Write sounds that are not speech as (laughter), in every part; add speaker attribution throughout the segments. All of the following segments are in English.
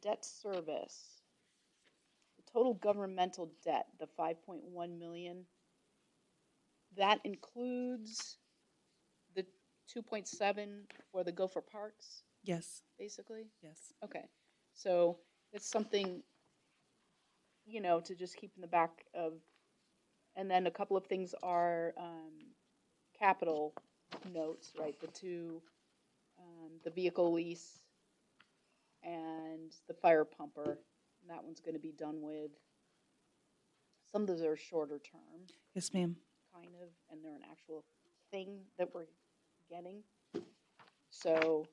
Speaker 1: debt service, the total governmental debt, the five point one million, that includes the two point seven for the Gopher Parks,
Speaker 2: Yes,
Speaker 1: basically?
Speaker 2: yes.
Speaker 1: Okay, so it's something, you know, to just keep in the back of, and then a couple of things are, um, capital notes, right, the two, um, the vehicle lease and the fire pumper, and that one's gonna be done with, some of those are shorter term,
Speaker 2: Yes, ma'am.
Speaker 1: kind of, and they're an actual thing that we're getting, so.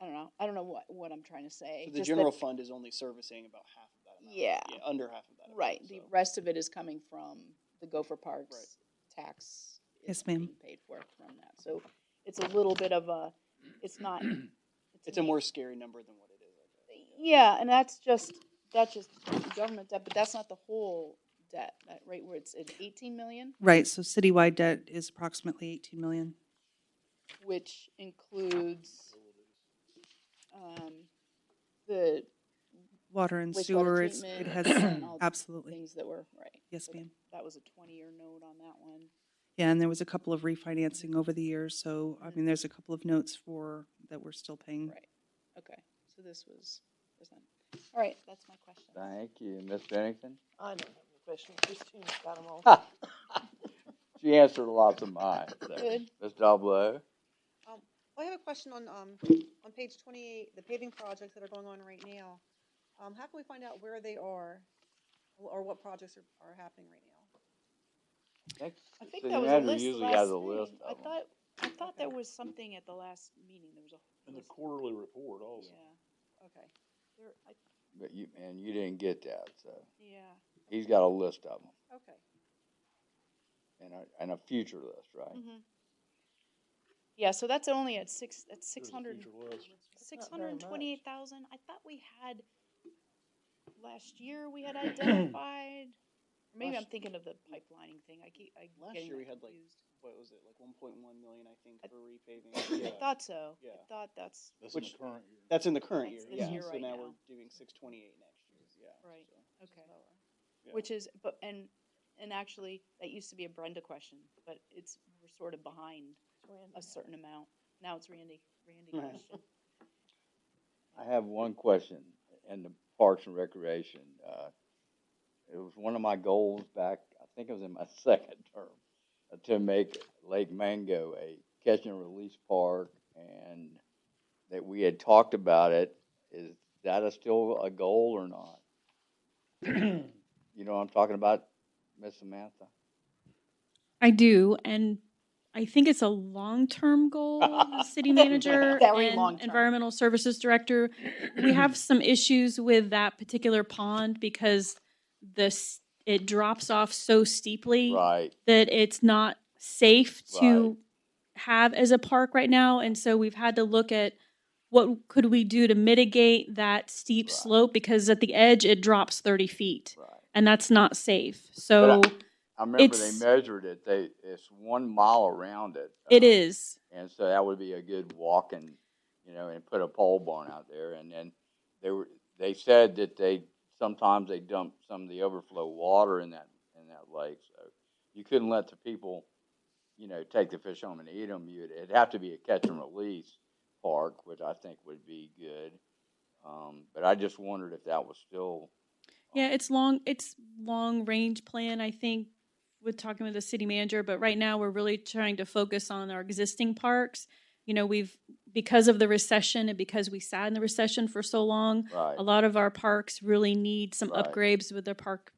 Speaker 1: I don't know, I don't know what, what I'm trying to say.
Speaker 3: So the
Speaker 1: just that-
Speaker 3: general fund is only servicing about half of that amount.
Speaker 1: Yeah.
Speaker 3: under half of that. amount,
Speaker 1: Right, the
Speaker 3: so.
Speaker 1: rest of it is coming from the Gopher Parks tax. is
Speaker 2: Yes, ma'am.
Speaker 1: being Paid for from that, so it's a little bit of a, it's not.
Speaker 3: (clears throat) It's a more scary number than what it is. I guess.
Speaker 1: Yeah, and that's just, that's just government debt, but that's not the whole debt, that- right, where it's, it's eighteen million,
Speaker 2: Right, so citywide debt is approximately 18 million.
Speaker 1: which includes, um, the
Speaker 2: Water and sewer,
Speaker 1: wastewater
Speaker 2: it's,
Speaker 1: treatment
Speaker 2: it has,
Speaker 1: and all the
Speaker 2: absolutely.
Speaker 1: things that were, right.
Speaker 2: Yes,
Speaker 1: So that-
Speaker 2: ma'am.
Speaker 1: That was a twenty-year note on that one.
Speaker 2: Yeah, and there was a couple of refinancing over the years, so, I mean, there's a couple of notes for, that we're still paying.
Speaker 1: Right, okay, so this was, was not, all right, that's my question.
Speaker 4: Thank you, Ms. Bennington.
Speaker 5: I don't have any questions. Christine's got them all.
Speaker 4: She answered lots of mine. so.
Speaker 1: Good.
Speaker 4: Ms. Dalblo,
Speaker 6: I have a question on, um, on page twenty-eight, the paving projects that are going on right now. Um, how can we find out where they are, or or what projects are, are happening right now?
Speaker 4: next
Speaker 1: I think
Speaker 4: city
Speaker 1: that was a
Speaker 4: manager
Speaker 1: list
Speaker 4: usually
Speaker 1: last
Speaker 4: has a list
Speaker 1: thing. I
Speaker 4: of 'em.
Speaker 1: thought, I thought there was something at the last meeting, there was a.
Speaker 7: And the
Speaker 1: list.
Speaker 7: quarterly report also.
Speaker 1: Yeah,
Speaker 6: Okay,
Speaker 1: there, I,
Speaker 4: But you, and you didn't get that, so
Speaker 1: yeah.
Speaker 4: he's got a list of them
Speaker 6: okay.
Speaker 4: and a, and a future list, right?
Speaker 3: Mm-hmm.
Speaker 1: Yeah, so that's only at six, that's
Speaker 7: There's
Speaker 1: six
Speaker 7: a
Speaker 1: hundred,
Speaker 7: future list.
Speaker 1: six
Speaker 5: That's not very
Speaker 1: hundred and
Speaker 5: much.
Speaker 1: twenty-eight thousand, I thought we had, last year we had identified, or maybe I'm
Speaker 3: Last-
Speaker 1: thinking of the pipelining thing, I keep, I.
Speaker 3: Last
Speaker 1: getting
Speaker 3: year
Speaker 1: that
Speaker 3: we had, like,
Speaker 1: confused.
Speaker 3: What was it, like one point one million, I think,
Speaker 1: I-
Speaker 3: for repaving?
Speaker 1: I thought so, I
Speaker 3: uh, Yeah.
Speaker 1: thought that's,
Speaker 7: That's in the
Speaker 3: Which-
Speaker 7: current year.
Speaker 3: That's in the current year,
Speaker 1: That's this
Speaker 3: yeah,
Speaker 1: year
Speaker 3: so
Speaker 1: right
Speaker 3: now
Speaker 1: now.
Speaker 3: we're doing six twenty-eight next year, yeah.
Speaker 1: Right.
Speaker 3: so.
Speaker 1: okay.
Speaker 3: Yeah.
Speaker 1: Which is, but, and, and actually, that used to be a Brenda question, but it's, we're sort of behind a certain amount. Now it's Randy,
Speaker 3: (laughs)
Speaker 1: Randy
Speaker 3: Right.
Speaker 1: question. (laughs)
Speaker 4: I have one question in the Parks and Recreation. Uh, it was one of my goals back, I think it was in my (laughs) second term, uh, to make Lake Mango a catch and release park and that we had talked about it. Is that a still a goal or not? You know what I'm talking about, Miss Samantha?
Speaker 8: I do, and I think it's a long-term goal. The
Speaker 4: (laughs)
Speaker 8: city manager
Speaker 1: Very
Speaker 8: and
Speaker 1: long-term.
Speaker 8: environmental services director, we
Speaker 4: (clears throat)
Speaker 8: have some issues with that particular pond because this it drops off so steeply
Speaker 4: Right.
Speaker 8: that it's not safe
Speaker 4: Right.
Speaker 8: to have as a park right now, and so we've had to look at what could we do to mitigate that steep
Speaker 4: Right.
Speaker 8: slope because at the edge it drops thirty feet,
Speaker 4: Right.
Speaker 8: and that's not safe. So
Speaker 4: But I remember
Speaker 8: It's-
Speaker 4: they measured it. They it's one mile around it.
Speaker 8: it
Speaker 4: Uh,
Speaker 8: is.
Speaker 4: And so that would be a good walk and, you know, and put a pole barn out there. And then they were, they said that they, sometimes they dump some of the overflow water in that, in that lake. So you couldn't let the people, you know, take the fish home and eat them. You'd, it'd have to be a catch and release park, which I think would be good. Um, but I just wondered if that was still. um,
Speaker 8: Yeah, it's long, it's long range plan, I think, with talking with the city manager, but right now we're really trying to focus on our existing parks. You know, we've, because of the recession and because we sat in the recession for so long,
Speaker 4: Right.
Speaker 8: a lot of our parks really need some
Speaker 4: Right.
Speaker 8: upgrades with their park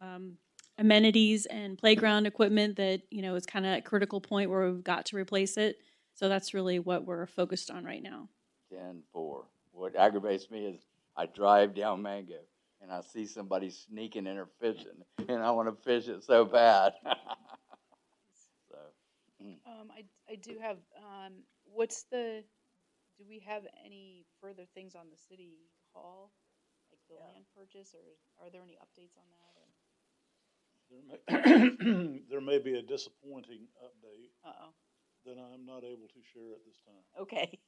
Speaker 8: um, amenities and playground equipment that, you know, is kind of a critical point where we've got to replace it. So that's really what we're focused on right now.
Speaker 4: ten four. What aggravates me is I drive down Mango and I see somebody sneaking in or fishing, and I want to fish it so bad. (laughs) so
Speaker 1: Um, I, I do have, um, what's the, do we have any further things on the city hall? Like the
Speaker 5: Yeah.
Speaker 1: land purchase, or are there any updates on that? or-
Speaker 7: There may- (clears throat) There may be a disappointing update
Speaker 1: Uh-oh,
Speaker 7: that I'm not able to share at this time.
Speaker 1: okay.